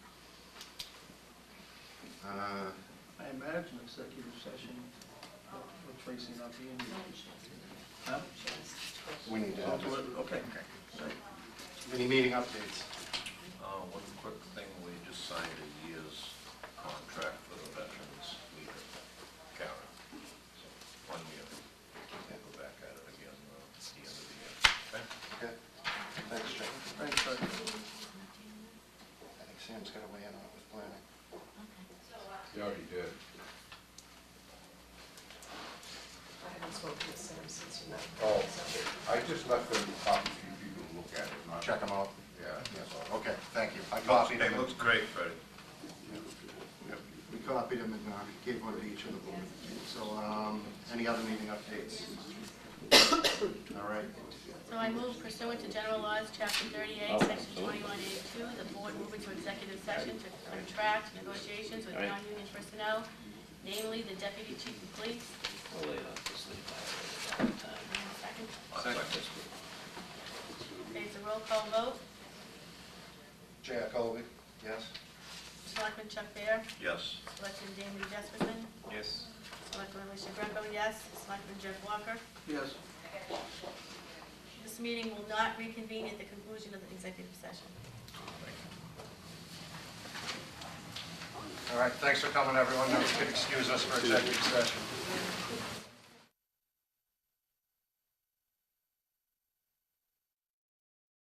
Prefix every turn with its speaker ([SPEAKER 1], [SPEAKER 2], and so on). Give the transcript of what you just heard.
[SPEAKER 1] Uh,
[SPEAKER 2] I imagine executive session uh, with Tracy not being here. Huh?
[SPEAKER 1] We need to,
[SPEAKER 2] Oh,
[SPEAKER 1] have
[SPEAKER 2] good, Okay. Right.
[SPEAKER 1] any meeting updates?
[SPEAKER 3] Uh, One quick thing, we just signed a year's contract for the veterans leader, Karen. So, One year. We'll go back at it again uh, at the end of the year. Okay?
[SPEAKER 1] Okay, thanks, Jake.
[SPEAKER 2] Thanks, Doug.
[SPEAKER 1] I think Sam's got to weigh in on it with planning.
[SPEAKER 4] You already did.
[SPEAKER 5] I haven't spoken to Sam since you met.
[SPEAKER 4] Oh, I just left them a copy for you people to look at it. not-
[SPEAKER 1] Check them out.
[SPEAKER 4] Yeah.
[SPEAKER 1] Yes, okay, thank you. I copied him,
[SPEAKER 3] It looks
[SPEAKER 1] and-
[SPEAKER 3] great, Freddie.
[SPEAKER 1] we copied him and uh, gave one to each of the board. So, um, any other meeting updates? All right,
[SPEAKER 6] So I move pursuant to general laws, chapter thirty-eight,
[SPEAKER 7] Oh,
[SPEAKER 6] section twenty-one eighty-two, the board move into executive session to contract negotiations with non-union personnel, namely the deputy chief of police.
[SPEAKER 7] I'll lay it off to sleep, I have it all the time.
[SPEAKER 6] Second,
[SPEAKER 3] Second.
[SPEAKER 6] it's a roll call vote.
[SPEAKER 1] Jack Colby, yes?
[SPEAKER 6] Selectman Chuck Baer,
[SPEAKER 3] Yes.
[SPEAKER 6] Selectman Damon Jesperson,
[SPEAKER 3] Yes.
[SPEAKER 6] Selectman Alicia Greco, yes. Selectman Jeff Walker.
[SPEAKER 2] Yes.
[SPEAKER 6] This meeting will not reconvene at the conclusion of the executive session.
[SPEAKER 1] All right, thanks for coming, everyone. Now you can excuse us for executive session.